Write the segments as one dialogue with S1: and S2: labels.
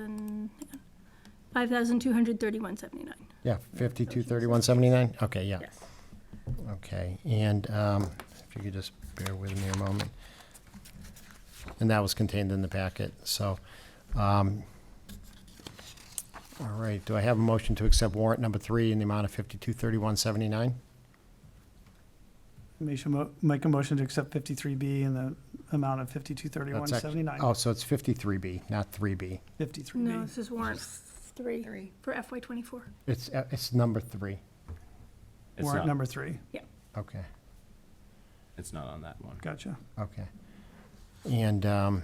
S1: thousand, five thousand two hundred thirty-one seventy-nine,
S2: Yeah, fifty-two thirty-one seventy-nine? Okay, yeah,
S1: yes.
S2: okay. And um, if you could just bear with me a moment. And that was contained in the packet, so. um, All right, do I have a motion to accept warrant number three in the amount of fifty-two thirty-one seventy-nine?
S3: Make a mo- Make a motion to accept fifty-three B in the amount of fifty-two thirty-one seventy-nine,
S2: Oh, so it's fifty-three B, not three B.
S3: fifty-three B.
S1: No, this is warrant three
S4: Three.
S1: for FY twenty-four.
S2: It's, uh, it's number three,
S5: It's
S3: Warrant
S5: not,
S3: number three,
S2: okay.
S5: it's not on that one.
S3: gotcha.
S2: Okay. And, um,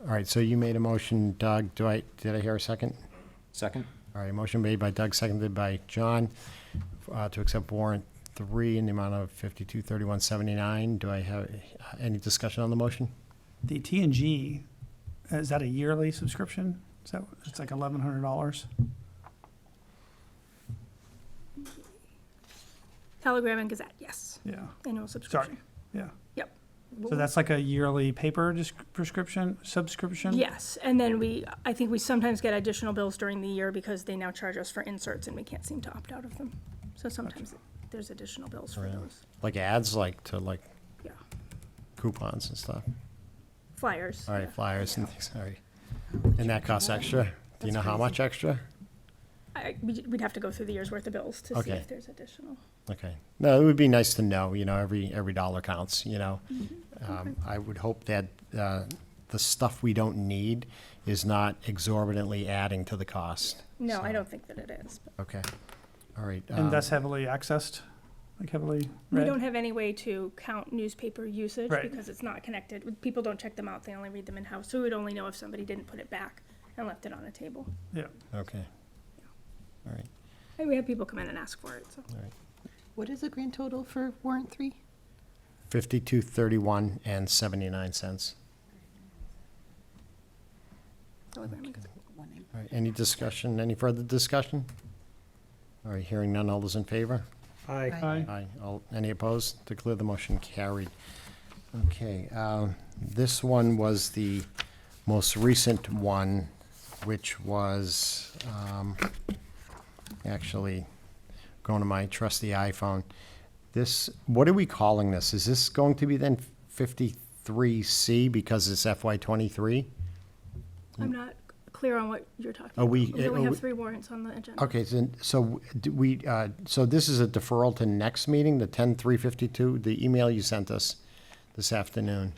S2: all right, so you made a motion, Doug. Do I, did I hear a second?
S5: Second?
S2: All right, motion made by Doug, seconded by John, uh, to accept warrant three in the amount of fifty-two thirty-one seventy-nine. Do I have uh, any discussion on the motion?
S3: The T and G, is that a yearly subscription? Is that, it's like eleven hundred dollars?
S1: Telegram and Gazette, yes,
S3: Yeah,
S1: annual
S3: sorry,
S1: subscription.
S3: yeah.
S1: Yep.
S3: So that's like a yearly paper dis- prescription, subscription?
S1: Yes, and then we, I think we sometimes get additional bills during the year because they now charge us for inserts and we can't seem to opt out of them. So sometimes there's additional bills for
S2: Right.
S1: those,
S2: Like ads, like to like
S1: yeah,
S2: coupons and stuff?
S1: flyers.
S2: All right,
S1: yeah.
S2: flyers and things, all right. And that costs extra? Do you know how much extra?
S1: I, we'd we'd have to go through the year's worth of bills to see
S2: Okay.
S1: if there's additional.
S2: Okay. No, it would be nice to know, you know, every, every dollar counts, you know?
S1: Mm-hmm.
S2: Um, I would hope that, uh, the stuff we don't need is not exorbitantly adding to the cost.
S1: No, I
S2: So,
S1: don't think that it is, but
S2: Okay. All right. um,
S3: And that's heavily accessed, like heavily
S1: we
S3: read?
S1: don't have any way to count newspaper usage
S3: Right.
S1: because it's not connected. People don't check them out, they only read them in-house, so we would only know if somebody didn't put it back and left it on a table.
S2: Okay. All right.
S1: And we had people come in and ask for it, so.
S4: What is the grand total for warrant three?
S2: Fifty-two thirty-one and seventy-nine cents.
S1: Telegram and Gazette.
S2: All right, any discussion, any further discussion? All right, hearing none, all those in favor?
S4: Aye.
S3: Aye.
S2: Aye. All, any opposed? Declare the motion carried. Okay, um, this one was the most recent one, which was, um, actually, going to my trusty iPhone. This, what are we calling this? Is this going to be then fifty-three C because it's FY twenty-three?
S1: I'm not clear on what you're talking
S2: Are
S1: about.
S2: we-
S1: We only
S2: are we-
S1: have three warrants on the agenda.
S2: Okay, so, so do we, uh, so this is a deferral to next meeting, the ten three fifty-two, the email you sent us this afternoon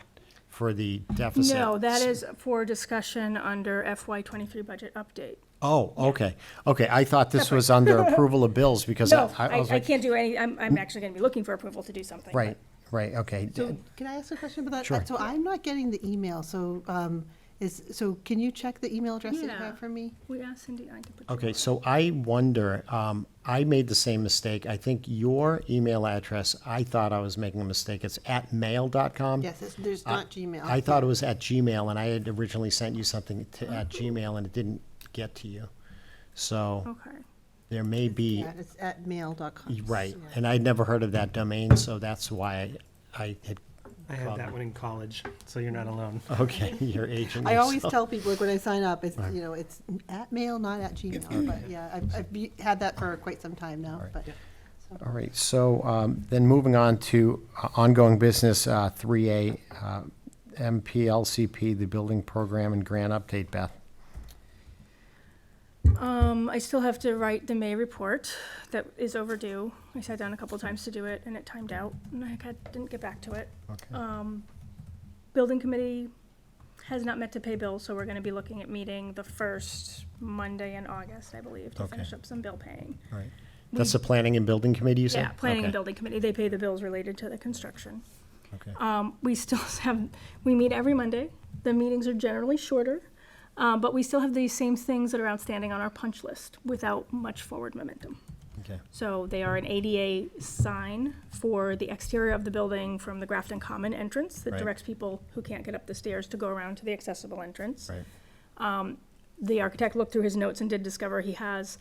S2: for the deficit?
S1: No, that is for discussion under FY twenty-three budget update.
S2: Oh, okay, okay, I thought this was under approval of bills because I,
S1: No,
S2: I
S1: I,
S2: was
S1: I
S2: like,
S1: can't do any, I'm, I'm actually gonna be looking for approval to do something. but-
S2: right, right, okay.
S4: So can I ask a question about that?
S2: Sure.
S4: So I'm not getting the email, so, um, is, so can you check the email address that you
S1: Yeah.
S4: have for me?
S1: We asked Cindy, I can put. you
S2: Okay,
S1: on.
S2: so I wonder, um, I made the same mistake, I think your email address, I thought I was making a mistake, it's at mail.com?
S4: Yes, it's, there's
S2: I-
S4: not Gmail.
S2: I thought it was at Gmail, and I had originally sent you something to, at
S1: Mm-hmm.
S2: Gmail, and it didn't get to you. So
S1: Okay,
S2: there may be,
S4: Yeah, it's at mail.com.
S2: right,
S4: Sorry.
S2: and I'd never heard of that domain, so that's why I had,
S6: I had that one in college, so you're not alone.
S2: okay, your agent.
S4: I
S2: is-
S4: always tell people, like, when I sign up, it's, you know, it's at mail, not at Gmail, but yeah, I've, I've be- had that for quite some time now, but.
S2: All right, so um, then moving on to uh, ongoing business, uh, 3A, uh, MPLCP, the building program and grant update, Beth.
S1: um, I still have to write the May report that is overdue. I sat down a couple times to do it and it timed out and I had, didn't get back to it. Um,
S2: Okay.
S1: Building committee has not met to pay bills, so we're gonna be looking at meeting the first Monday in August, I believe, to
S2: Okay.
S1: finish up some bill paying.
S2: All right. That's the planning and building committee, you said?
S1: Mm-hmm. Yeah, planning and
S2: Okay,
S1: building committee, they pay the bills related to the construction.
S2: okay.
S1: Um, we still have, we meet every Monday. The meetings are generally shorter, uh, but we still have these same things that are outstanding on our punch list without much forward momentum.
S2: Okay.
S1: So they are an ADA sign for the exterior of the building from the Grafton Common entrance that
S2: Right.
S1: directs people who can't get up the stairs to go around to the accessible entrance
S2: Right,
S1: the architect looked through his notes and did discover he has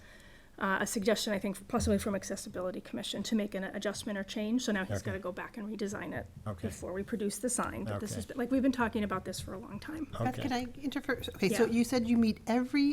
S1: uh, a suggestion, I think, possibly from Accessibility Commission to make an adjustment or change. So now he's
S2: Okay.
S1: got to go back and redesign it
S2: Okay.
S1: before we produce the sign. But this
S2: Okay.
S1: has been, like, we've been talking about this for a long time.
S4: Beth,
S2: Okay.
S4: can I interfere? Okay, so
S1: Yeah.
S4: you said you meet every